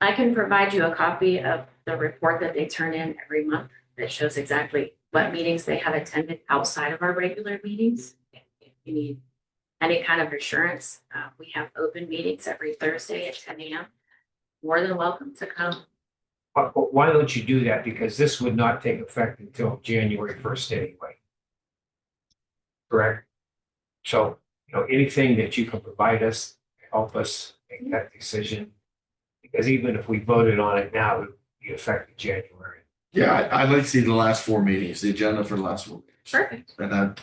I can provide you a copy of the report that they turn in every month that shows exactly what meetings they have attended outside of our regular meetings. If you need any kind of assurance, uh, we have open meetings every Thursday at ten AM. More than welcome to come. But, but why don't you do that? Because this would not take effect until January first anyway. Correct? So, you know, anything that you can provide us, help us make that decision. Because even if we voted on it now, it would be effective January. Yeah, I, I'd like to see the last four meetings, the agenda for the last four. meetings. Perfect. And then.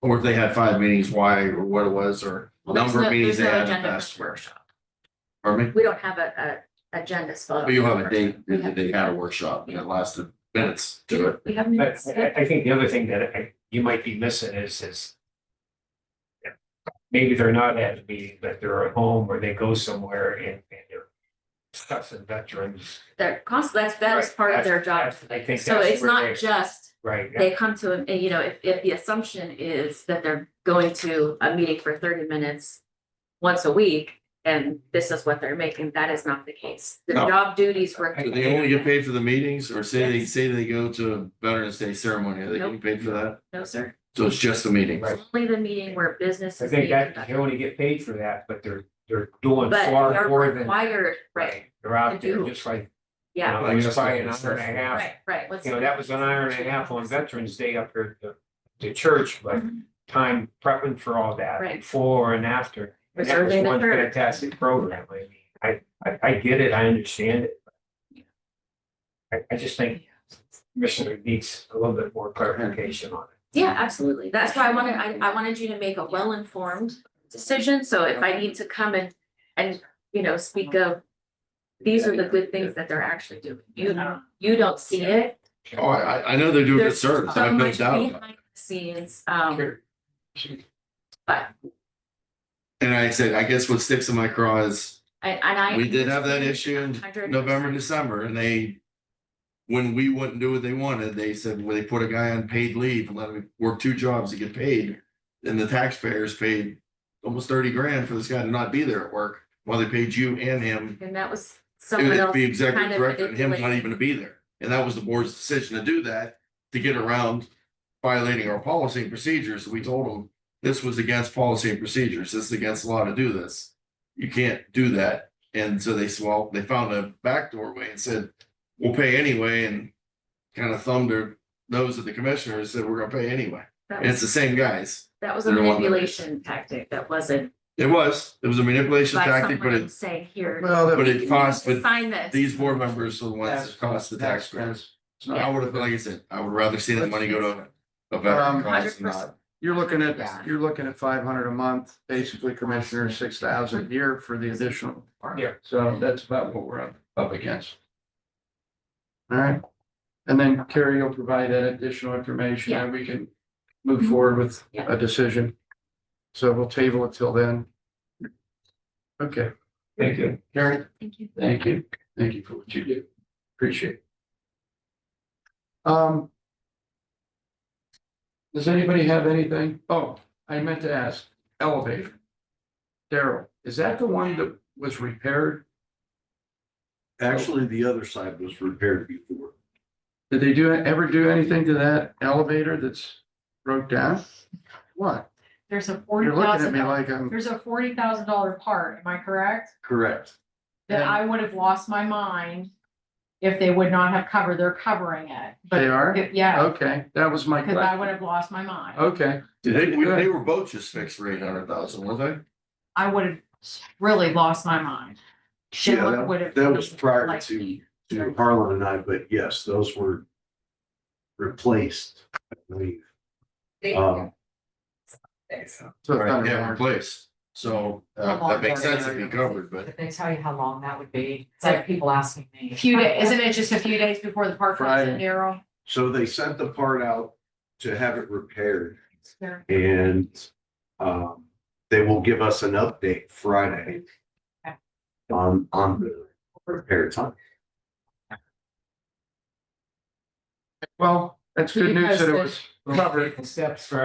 Or if they had five meetings, why or what it was, or Well, there's number no- of meetings they there's no had in the agenda for past. the workshop. Pardon me? We don't have a, a agenda spot. But Oh, you have a date We that have- they had a workshop and it lasted minutes to it. We have But minutes. I, I think the other thing that I- you might be missing is, is maybe they're not at a meeting, but they're at home or they go somewhere and, and they're discussing veterans. They're cost, that's, that's Right, part of that's- their job. that's- I think So that's it's where not they- just Right, they come to, a you know, if, if the assumption is that they're going to a meeting for thirty minutes once a week, and this is what they're making, that is not the case. The No. job duties were. Do they only get paid for the meetings or say they, say they go to Veterans Day ceremony, are they getting Nope. paid for that? No, sir. So it's just the meetings. Right. Only the meeting where business I is being think that they conducted. only get paid for that, but they're, they're doing But far they're more than. required, right, They're out to there do. just like, you yeah, know, Like it's just probably an like- hour and a half. right, right. What's- You know, that was an hour and a half on Veterans Day up here at the, the church, but Mhm. time prepping for all that, Right. before and after. And that was Reserving the one church. fantastic program. I mean, I, I, I get it, I understand it. I, I just think Commissioner needs a little bit more clarification on it. Yeah, absolutely. That's why I wanted, I, I wanted you to make a well-informed decision, so if I need to come and, and, you know, speak of. These are the good things that they're actually doing. You, you don't see it. Oh, I, I- I know they're doing good There's service, I so have no much doubt. about it. behind the Scenes, um, but And I said, I guess what sticks in my craw is, I, and I. we did have that issue in 100%. November, December, and they. When we wouldn't do what they wanted, they said, well, they put a guy on paid leave and let him work two jobs to get paid. And the taxpayers paid almost thirty grand for this guy to not be there at work while they paid you and him. And that was It someone was else. the kind executive of director and him not manipulated. even to be there. And that was the board's decision to do that, to get around violating our policy and procedures. We told them this was against policy and procedures. This is against law to do this. You can't do that. And so they, s- well, they found a back doorway and said, we'll pay anyway and kind of thumbed their nose at the commissioner and said, we're gonna pay anyway. That And it's was, the same guys. that was a they're the one that- manipulation tactic. That wasn't It was, it was a manipulation by tactic, but someone it, saying here. Well, but that- it cost, but Sign this. these board members are the ones that cost the taxpayers. I would have, like I said, I would rather see that money go to a veteran Um, cause than 100%. not. you're looking Yeah. at, you're looking at five hundred a month, basically commissioner, six thousand a year for the additional. Yeah. So that's about what we're up, up against. All right, and then Carrie will provide that additional information and we can move Mhm. forward with Yeah. a decision. So we'll table it till then. Okay, Thank you. Carrie? Thank you. Thank you. Thank you for what you do. Appreciate it. Um. Does anybody have anything? Oh, I meant to ask, elevator. Daryl, is that the one that was repaired? Actually, the other side was repaired before. Did they do, ever do anything to that elevator that's broke down? What? There's a forty You're looking at thousand, me like I'm, there's a forty thousand dollar part, am I correct? Correct. That Yeah. I would have lost my mind if they would not have covered, they're covering it, they but, are? if- yeah, Okay, that was my because I would question. have lost my mind. Okay, They, we- they were both just fixed for eight hundred thousand, weren't I would have really lost my mind. They Yeah, would have- that was prior like to- me. To Harlan and I, but yes, those were replaced, I believe. Um, so they? it's not Right, yeah, a- replaced. So, uh, that makes sense if you covered, but They tell you how long that would be. It's like people asking A me. Few days, isn't it just a few days before the park comes in, Friday. Daryl? so they sent the part out to have it repaired and, um, they will give us an update Friday on, on the repair time. well, that's good news that it was covered. Steps for